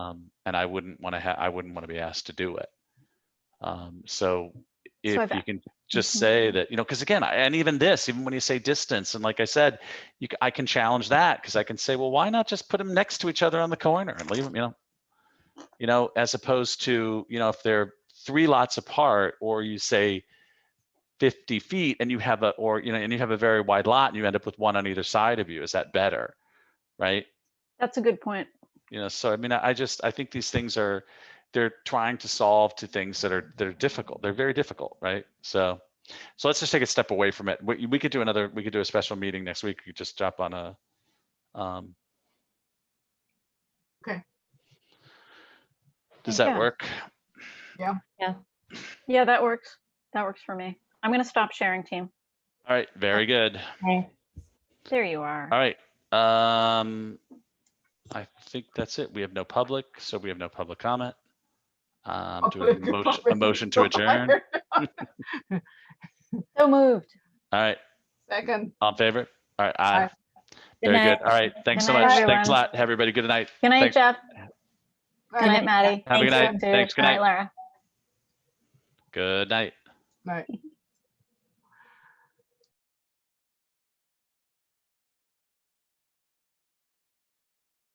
Um, and I wouldn't want to have, I wouldn't want to be asked to do it. Um, so I've if a- you can just Mhm. say that, you know, because again, I- and even this, even when you say distance, and like I said, you, c- I can challenge that because I can say, well, why not just put them next to each other on the corner and leave them, you know? You know, as opposed to, you know, if they're three lots apart or you say 50 feet and you have a, or, you know, and you have a very wide lot and you end up with one on either side of you, is that better? Right? That's a good point. you know so i mean i I just i think these things are they're trying to solve to things that are that are difficult they're very difficult right so so let's just take a step away from it we, we could do another we could do a special meeting next week you just drop on a um Okay. does Yeah. that work Yeah, that works. That works for me. I'm going to stop sharing team. all right very good There you are. all right um i think that's it we have no public so we have no public comment um do we have a motion, a motion to adjourn all So moved. right Second. All in favor? All right, aye. Aye. Good Very night. good. All right, thanks so Good night, much. Thanks a everyone. lot, everybody. Good night. Good night, Thanks. Jeff. Good Aye. night, Maddie. Have a good Thanks, night. Sue. Thanks. Good night. Lara. Good night. Right.